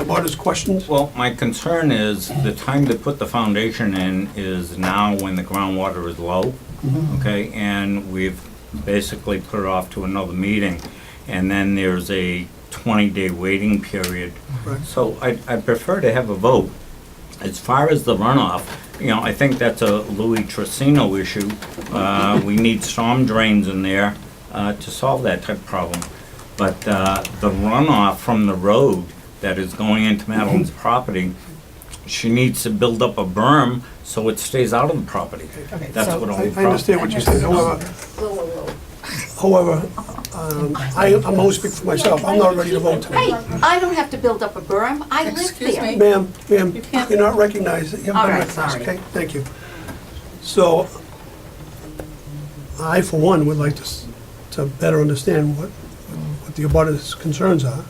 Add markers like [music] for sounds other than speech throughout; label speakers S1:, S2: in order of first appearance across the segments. S1: abutters questions?
S2: Well, my concern is the time to put the foundation in is now when the groundwater is low, okay? And we've basically put it off to another meeting. And then there's a 20-day waiting period.
S1: Right.
S2: So I I prefer to have a vote. As far as the runoff, you know, I think that's a Louis Trissino issue. Uh, We need storm drains in there uh, to solve that type of problem. But uh, the runoff from the road that is going into Madeline's
S1: Mm-hmm.
S2: property, she needs to build up a berm so it stays out of the property.
S3: Okay,
S2: That's
S3: so-
S2: what
S1: I
S2: all the
S1: I
S2: problem.
S1: understand what you said, however,
S4: Whoa, whoa, whoa.
S1: however, um, I, I'm gonna speak for myself, I'm not ready to vote
S4: Hey,
S1: tonight.
S4: I don't have to build up a berm, I live
S3: Excuse
S4: there.
S3: me?
S1: Ma'am, ma'am,
S3: You can't-
S1: you're not recognized, you haven't
S4: All
S1: been
S4: right,
S1: recognized,
S4: sorry.
S1: okay? Thank you. So, I for one would like to, s- to better understand what, what the abutters' concerns are.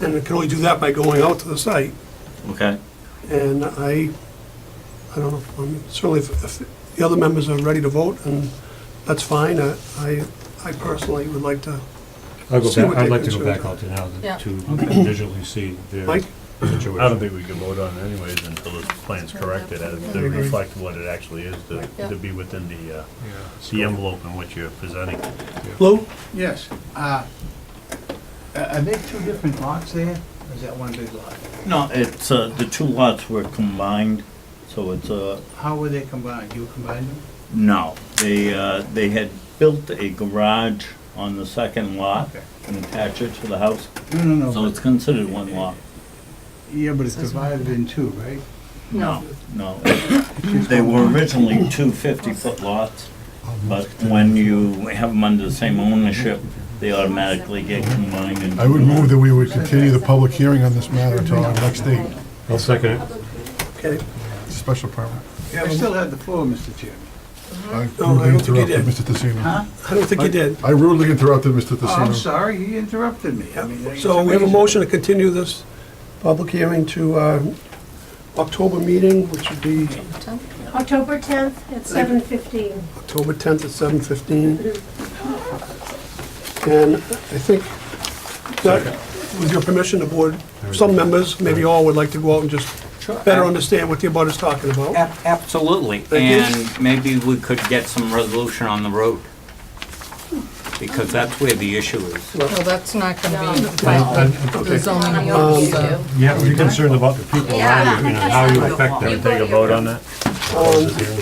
S1: And I can only do that by going out to the site.
S2: Mm-hmm. Okay,
S1: And I, I don't know, I'm certainly if- if the other members are ready to vote, and that's fine. I- I, I personally would like to,
S5: I'll go
S1: See
S5: back,
S1: what
S5: I'd
S1: they
S5: like to go
S1: consider.
S5: back out there now
S3: Yeah.
S5: to- to [clears throat] visually see their
S1: Mike?
S5: situation.
S6: I don't think we can vote on it anyways until the plan's corrected, uh, to reflect what it actually is, to, to be within the, uh, the envelope in which you're presenting.
S1: Lou?
S7: Yes. uh, Are are there two different lots there, or is that one big lot?
S2: no, it's, uh, the two lots were combined, so it's a,
S7: How were they combined? You combined them?
S2: No, they, uh, they had built a garage on the second lot
S7: Okay.
S2: and attached it to the house,
S7: No, no,
S2: so
S7: no.
S2: it's considered one lot.
S7: but- Yeah, but it's divided in two,
S1: [laughs]
S7: right?
S2: No. No. They were originally two 50-foot lots, but when you have them under the same ownership, they automatically get combined into.
S8: I would move that we would continue the public hearing on this matter until our next date,
S5: I'll second it.
S1: Okay.
S8: special permit.
S7: I still have the floor, Mr. Chairman.
S8: I
S1: No, I
S8: rudely
S1: don't think he
S8: interrupted
S1: did.
S8: Mr. Tissino.
S7: Huh?
S1: I don't think you did.
S8: I rudely interrupted Mr.
S7: Oh, I'm
S8: Tissino.
S7: sorry, he interrupted me. I mean, it's
S1: So we have a
S7: amazing.
S1: motion to continue this public hearing to uh, October meeting, which would be
S9: October 10th at 7:15.
S1: October 10th at 7:15. And I think that, with your permission, the board, some members, maybe all, would like to go out and just better understand what the abutters talking about. Um,
S2: Ab- Absolutely,
S1: you.
S2: and maybe we could get some resolution on the road, because that's where the issue is.
S3: Well, that's not gonna be
S4: No.
S3: by the
S1: Okay.
S3: zoning
S1: Um,
S3: laws, so.
S5: You have to be concerned about the people around you and how you affect
S4: You
S5: them.
S4: go to
S5: Take a
S4: your-
S5: vote on that?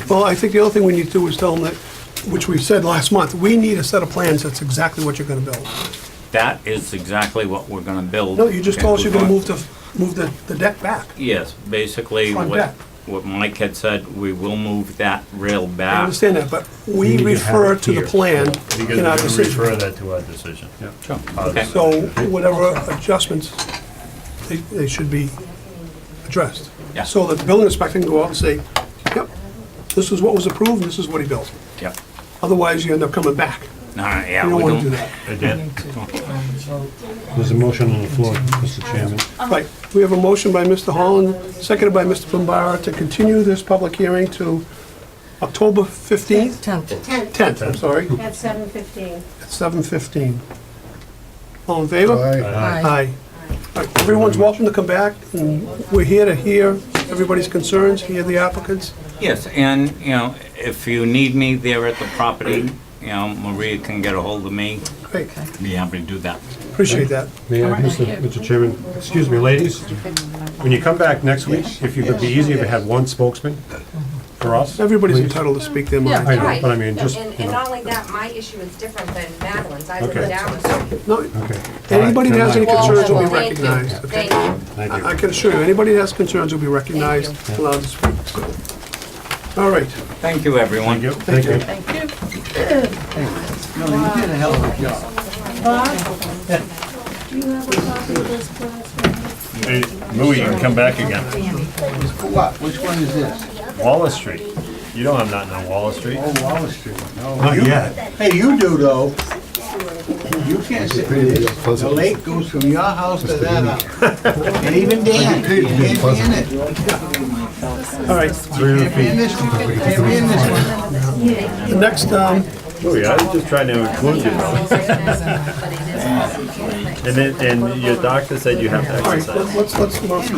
S1: Well, I think the other thing we need to do is tell them that, which we said last month, we need a set of plans that's exactly what you're gonna build.
S2: That is exactly what we're gonna build.
S1: No, you just told us you're gonna
S2: Okay.
S1: move the, move the the deck back.
S2: Yes, basically,
S1: Front
S2: what,
S1: deck.
S2: what Mike had said, we will move that rail
S1: I
S2: back.
S1: understand that, but
S5: Ah. You
S1: we
S5: need to have
S1: refer
S5: it
S1: to the
S5: here.
S1: plan
S6: Because
S1: in
S6: we're
S1: our
S6: gonna refer
S1: decision.
S6: that to our decision.
S2: Sure,
S6: Our
S2: okay.
S6: decision.
S1: So whatever adjustments, they, they should be addressed.
S2: Yeah.
S1: So that the building inspector can go out and say, yep, this is what was approved, this is what he built.
S2: Yep.
S1: Otherwise, you end up coming back.
S2: All right, yeah,
S1: You
S2: we
S1: don't wanna do
S2: don't,
S1: that.
S6: Again,
S5: There's a motion on the floor, Mr. Chairman.
S1: Right, we have a motion by Mr. Holland, seconded by Mr. Bombara, to continue this public hearing to October 15th,
S3: 10th.
S9: 10th
S1: 10th, I'm sorry,
S9: at 7:15.
S1: at 7:15. All in favor?
S5: Uh,
S8: Aye.
S3: Aye.
S1: Aye. All right, Everyone's welcome to come back, and we're here to hear everybody's concerns, hear the applicants.
S2: yes, and, you know, if you need me there at the property, you know, Maria can get a hold of me,
S1: Great,
S2: be happy to do that.
S1: appreciate that.
S5: May I, Mr. Mr. Chairman, excuse me, ladies, when you come back next week, if you could be easy, if you had one spokesman for us.
S1: Everybody's
S5: please.
S1: entitled to speak their mind.
S5: I know,
S10: Right.
S5: but I mean,
S10: No,
S5: just,
S10: And,
S5: you
S10: and
S5: know,
S10: not only that, my issue is different than Madeline's, I live
S5: Okay.
S10: down the street.
S1: No,
S5: okay.
S1: anybody that has any
S5: All right,
S1: concerns will be
S10: Thank you.
S1: recognized, okay?
S10: Thank you.
S5: Thank you.
S1: I I can assure you, anybody that has concerns will be recognized, allowed to speak, so. All right,
S2: Thank you, everyone.
S5: Thank you. Thank you.
S7: No, you did a hell of a job.
S9: Bob, do you have a copy of this class?
S6: hey, Louis, you can come back again.
S7: For what? Which one is this?
S6: Wallace Street, you know I'm not on Wallace Street.
S7: Oh, Wallace Street. No.
S5: Not
S7: You-
S5: yet.
S7: Hey, you do though. You can't sit
S8: Paid to
S7: with
S8: be a
S7: this. The
S8: pleasant-
S7: lake goes from your house to that house. And even Dan,
S8: paid to be a
S7: Dan
S8: pleasant-
S7: Dan it.
S1: all right.
S5: Three hundred feet.
S7: Dan this one. Dan this one.
S1: The next um,
S6: Oh, yeah, I was just trying to include you. though.
S10: But it is.
S6: And then, and your doctor said you have to
S1: All right,
S6: exercise.
S1: let's, let's, let's